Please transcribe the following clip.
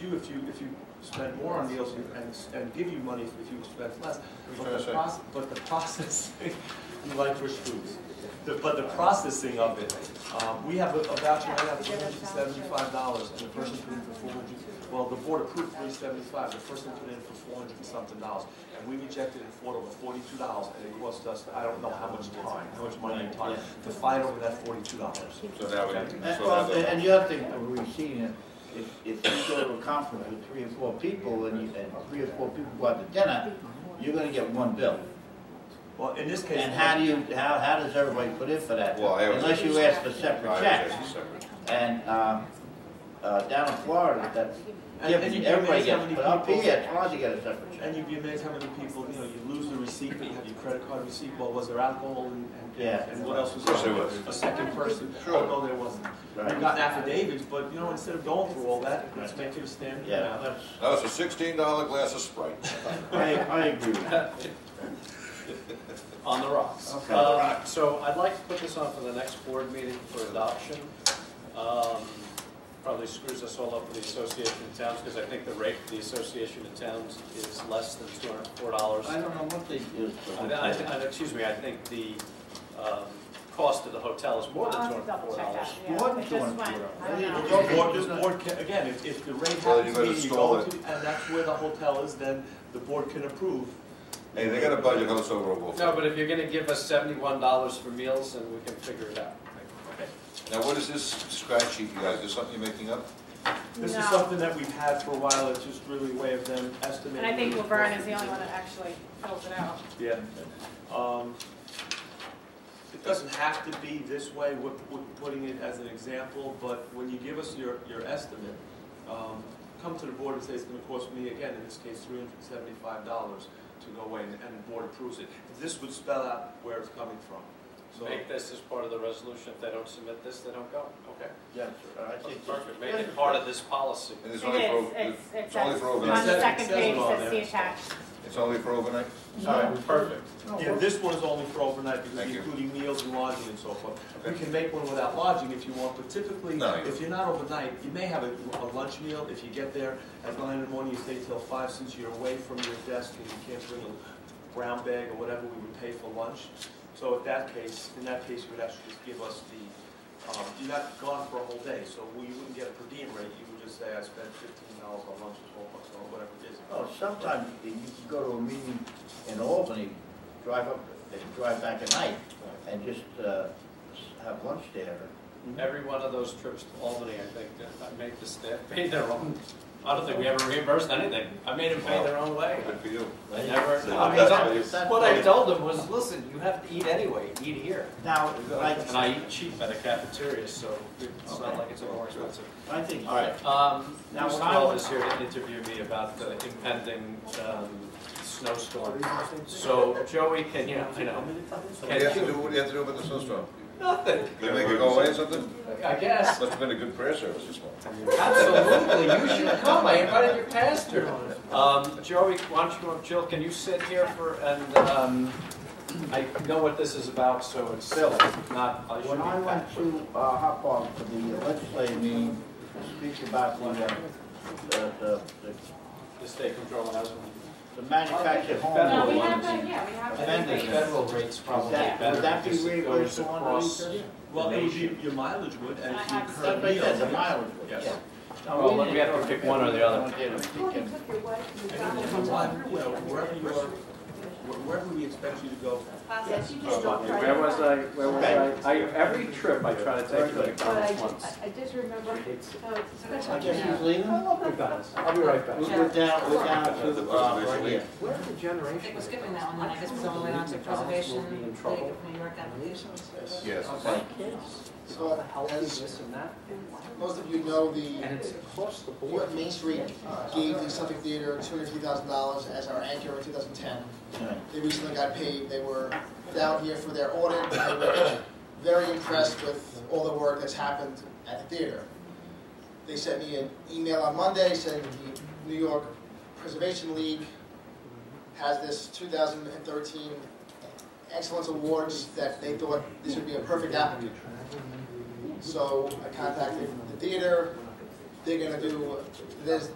you if you, if you spend more on meals and, and- and give you money if you spend less. Who's But gonna the say? process, but the processing, you like Rich Foods. The- But the processing of it, um, we have a a voucher right now for three hundred and seventy-five dollars, and the person put in for four hundred, well, the board approved three seventy-five, the person put in for four hundred and something dollars. And we rejected it for over forty-two dollars, and it cost us, I don't know how much time, how much money and time, to fight over that forty-two dollars. So that would, so And, well, and- that and the other thing that we've seen, is if, if you go to a conference with three or four people and you, and three or four people go out to dinner, you're gonna get one bill. Well, in this case. And how do you, how, how does everybody put in for that? Well, I would- Unless you ask for would, I separate would checks. just separate. And, um, uh, down in Florida, that's, And- yeah, and you- but everybody you have gets, any but up people- here, it's hard to get a separate check. And you'd be amazed how many people, you know, you lose the receipt, but you have your credit card receipt, well, was there alcohol and, Yeah. and, and what else was Of course there? there was. A second person, Sure. oh, no, there wasn't. Right. We've got affidavits, but, you know, instead of going through all that, let's make it a standard. Yeah, amount. that's, That was a sixteen dollar glass of Sprite. I, I agree with that. On the rocks. Okay. Um, So I'd like to put this on for the next board meeting for adoption. Um, Probably screws us all up with the Association of Towns, because I think the rate for the Association of Towns is less than two hundred and four dollars. I don't know what they do. Excuse me, I think the um, cost of the hotel is more I'll than two have hundred and to double four check dollars. that, yeah. More than I just 200. went, I don't know. The board, this board can, again, if, if the rate Well, happens you to better be, you stall go it. to, and that's where the hotel is, then the board can approve. Hey, they got a budget host over a wolf. No, but if you're gonna give us seventy-one dollars for meals, then we can figure it out. Now, what is this scratch sheet you guys, is this something you're making up? This is No. something that we've had for a while, it's just really a way of them estimating. And I think what it's Laverne costing is the only to- one that actually fills it out. Yeah. Um, It doesn't have to be this way, we're, we're putting it as an example, but when you give us your, your estimate, um, come to the board and say it's gonna cost me, again, in this case, three hundred and seventy-five dollars to go away, and, and the board approves it. This would spell out where it's coming from, so. Make this as part of the resolution. If they don't submit this, they don't go. Okay. Yes, I think. Perfect. Make it part of this policy. And It it's only is, for, it's, it's it's only for on overnight. the overnight, second It says it page, on it says there. the attached. it's only for overnight? Sorry. Perfect. Yeah, this one is only for overnight because Thank you. including meals and lodging and so forth. We Okay. can make one without lodging if you want, but typically, No, you- if you're not overnight, you may have a a lunch meal. If you get there at nine in the morning, you stay till five since you're away from your desk and you can't bring a brown bag or whatever we would pay for lunch. So at that case, in that case, you would actually just give us the, um, you're not gone for a whole day, so we wouldn't get a per diem rate. You would just say, I spent fifteen dollars on lunch or twelve bucks on whatever it is. Oh, sometimes you can go to a meeting in Albany, drive up, and drive back at night, and just, uh, s- have lunch there. Every one of those trips to Albany, I think, I made the staff pay their own. I don't think we ever reimbursed anything. I made them pay their own way. Good for you. I never, So I that's mean, how some- you- That- what I told them was, listen, you have to eat anyway, eat here. Now, like, And I eat cheap at a cafeteria, so it's not like it's any more expensive. I think, All right, um, Now, Bruce when I Knoll was- is here to interview me about the impending, um, snowstorm. So Joey, can you, you know, What do you have to do, what do you have to do about the snowstorm? nothing, They make it go away or something? I guess. Must've been a good prayer service this morning. Absolutely, you should come, I invited your pastor. Um, Joey, why don't you, go- Jill, can you sit here for, and, um, I know what this is about, so it's silly, not, I should when I be went back. to, uh, Hop Farm for the legislative meeting, to speak about the, uh, the, the, the- The state control has one. the manufactured home. Federal No, we ones. have, a- yeah, we have. I a think the space. federal rate's probably Is that- better. would that be because it goes reimbursed on across- the- Well, it would be, your mileage would, and if you I have incur That's like that, meals. the mileage, yeah. Yes. No, Well, we have to pick one or the other. didn't. We can- And if you want, you know, wherever you are, wh- wherever we expect you to go, Yes, you just don't try Where to- was I, where was I, I, every trip I try to take to But I McDonald's once. just, I just remember, It's- oh, it's such I a guess he's jam. leaving. I love McDonald's, I'll be right back. We're down, we're down to the, uh, right here. Where's the generation? It was given that one, then I guess we all went on to preservation, League of New York applications. Yes. So as This and that. most of you know, And it's the across the New board. York Main Street gave the Suffolk Theater two hundred fifty thousand dollars as our anchor in two thousand ten. Right. They recently got paid, they were down here for their audit, they were very impressed with all the work that's happened at the theater. They sent me an email on Monday saying the New York Preservation League has this two thousand and thirteen Excellence Awards that they thought this would be a perfect applicant. So I contacted the theater, they're gonna do, there's,